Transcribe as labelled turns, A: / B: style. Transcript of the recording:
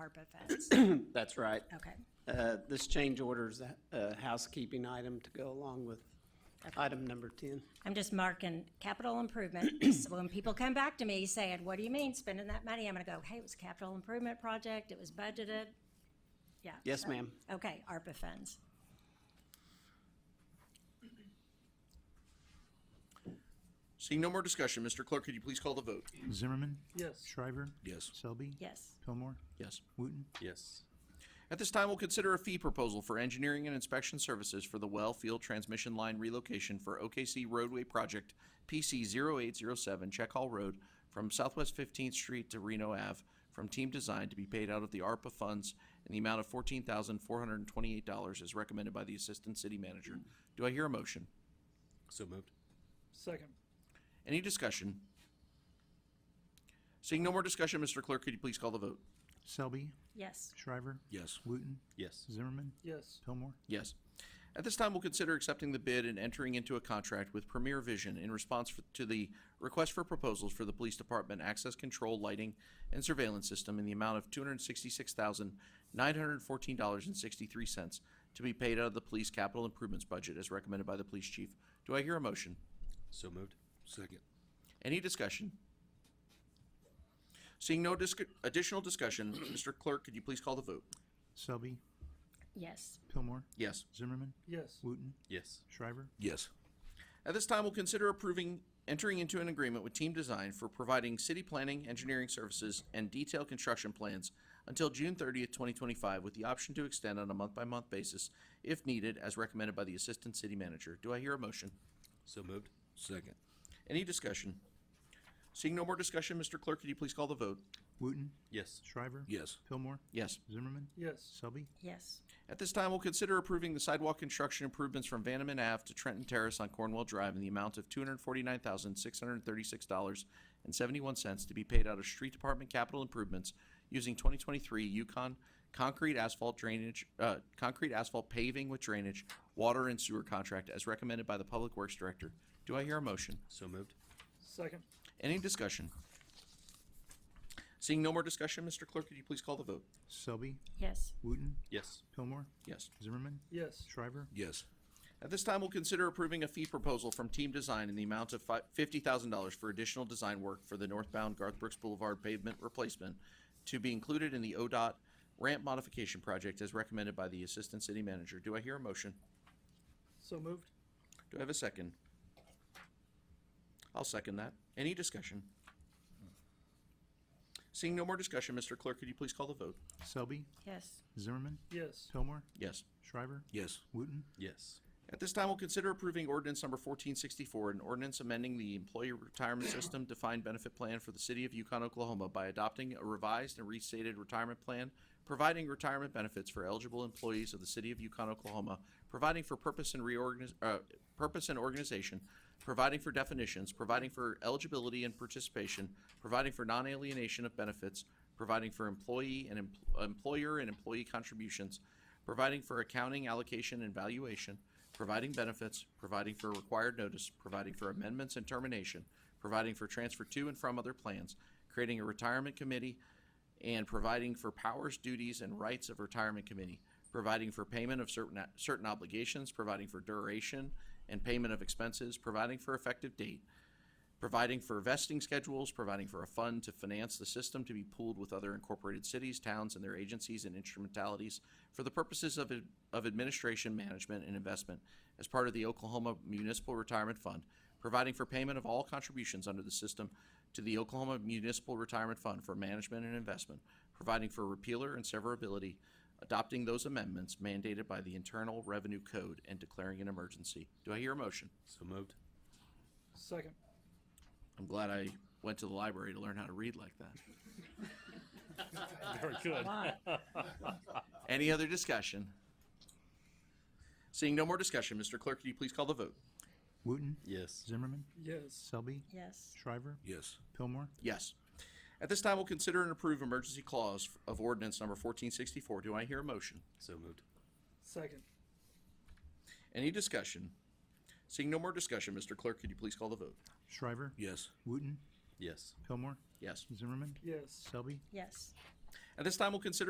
A: ARPA funds.
B: That's right.
A: Okay.
B: Uh, This change order is a- a housekeeping item to go along with item number 10.
A: I'm just marking capital improvement. So when people come back to me saying, what do you mean spending that money? I'm gonna go, hey, it was a capital improvement project, it was budgeted. Yeah.
B: Yes, ma'am.
A: Okay, ARPA funds.
C: Seeing no more discussion, Mr. Clerk, could you please call the vote?
D: Zimmerman?
E: Yes.
D: Shriver?
C: Yes.
D: Selby?
A: Yes.
D: Pillmore?
C: Yes.
D: Wooten?
E: Yes.
C: At this time, we'll consider a fee proposal for engineering and inspection services for the well field transmission line relocation for OKC roadway project PC 0807 Check Hall Road from Southwest 15th Street to Reno Ave from Team Design to be paid out of the ARPA funds in the amount of $14,428 as recommended by the Assistant City Manager. Do I hear a motion?
E: So moved. Second.
C: Any discussion? Seeing no more discussion, Mr. Clerk, could you please call the vote?
D: Selby?
A: Yes.
D: Shriver?
C: Yes.
D: Wooten?
E: Yes.
D: Zimmerman?
E: Yes.
D: Pillmore?
C: Yes. At this time, we'll consider accepting the bid and entering into a contract with Premier Vision in response f- to the request for proposals for the Police Department Access Control Lighting and Surveillance System in the amount of two hundred and sixty-six thousand, nine hundred and fourteen dollars and sixty-three cents to be paid out of the police capital improvements budget as recommended by the police chief. Do I hear a motion?
E: So moved. Second.
C: Any discussion? Seeing no disc- additional discussion, Mr. Clerk, could you please call the vote?
D: Selby?
A: Yes.
D: Pillmore?
C: Yes.
D: Zimmerman?
E: Yes.
D: Wooten?
E: Yes.
D: Shriver?
C: Yes. At this time, we'll consider approving entering into an agreement with Team Design for providing city planning, engineering services, and detailed construction plans until June thirtieth, twenty twenty-five, with the option to extend on a month-by-month basis if needed, as recommended by the Assistant City Manager. Do I hear a motion?
E: So moved. Second.
C: Any discussion? Seeing no more discussion, Mr. Clerk, could you please call the vote?
D: Wooten?
E: Yes.
D: Shriver?
E: Yes.
D: Pillmore?
C: Yes.
D: Zimmerman?
E: Yes.
D: Selby?
A: Yes.
C: At this time, we'll consider approving the sidewalk construction improvements from Vandeman Ave to Trenton Terrace on Cornwall Drive in the amount of two hundred forty-nine thousand, six hundred thirty-six dollars and seventy-one cents to be paid out of street department capital improvements using twenty twenty-three Yukon concrete asphalt drainage, uh, concrete asphalt paving with drainage, water and sewer contract as recommended by the Public Works Director. Do I hear a motion?
E: So moved.
F: Second,
C: Any discussion? Seeing no more discussion, Mr. Clerk, could you please call the vote?
D: Selby?
A: Yes.
D: Wooten?
E: Yes.
D: Pillmore?
C: Yes.
D: Zimmerman?
F: yes,
D: Shriver?
E: Yes.
C: At this time, we'll consider approving a fee proposal from Team Design in the amount of fi- $50,000 for additional design work for the northbound Garth Brooks Boulevard pavement replacement to be included in the ODOT ramp modification project as recommended by the Assistant City Manager. Do I hear a motion?
F: so moved,
C: Do I have a second? I'll second that. Any discussion? Seeing no more discussion, Mr. Clerk, could you please call the vote?
D: Selby?
A: Yes.
D: Zimmerman?
F: yes,
D: Pillmore?
C: Yes.
D: Shriver?
E: Yes.
D: Wooten?
E: Yes.
C: At this time, we'll consider approving ordinance number fourteen sixty-four, an ordinance amending the Employee Retirement System Defined Benefit Plan for the City of Yukon, Oklahoma by adopting a revised and restated retirement plan, providing retirement benefits for eligible employees of the City of Yukon, Oklahoma, providing for purpose and reorganiz- uh, purpose and organization, providing for definitions, providing for eligibility and participation, providing for non-alienation of benefits, providing for employee and em- employer and employee contributions, providing for accounting, allocation, and valuation, providing benefits, providing for required notice, providing for amendments and termination, providing for transfer to and from other plans, creating a retirement committee, and providing for powers, duties, and rights of retirement committee, providing for payment of certain, certain obligations, providing for duration and payment of expenses, providing for effective date, providing for vesting schedules, providing for a fund to finance the system to be pooled with other incorporated cities, towns, and their agencies and instrumentalities for the purposes of, ad- of administration, management, and investment as part of the Oklahoma Municipal Retirement Fund, providing for payment of all contributions under the system to the Oklahoma Municipal Retirement Fund for management and investment, providing for repealer and severability, adopting those amendments mandated by the Internal Revenue Code, and declaring an emergency. Do I hear a motion?
E: So moved.
F: second,
C: I'm glad I went to the library to learn how to read like that.
G: Very good.
C: Any other discussion? Seeing no more discussion, Mr. Clerk, could you please call the vote?
D: Wooten?
E: Yes.
D: Zimmerman?
F: yes,
D: Selby?
A: Yes.
D: Shriver?
E: Yes.
D: Pillmore?
C: Yes. At this time, we'll consider and approve emergency clause of ordinance number fourteen sixty-four. Do I hear a motion?
E: So moved.
F: second,
C: Any discussion? Seeing no more discussion, Mr. Clerk, could you please call the vote?
D: Shriver?
E: Yes.
D: Wooten?
E: Yes.
D: Pillmore?
C: Yes.
D: Zimmerman?
F: yes.
D: Selby?
A: Yes.
C: At this time, we'll consider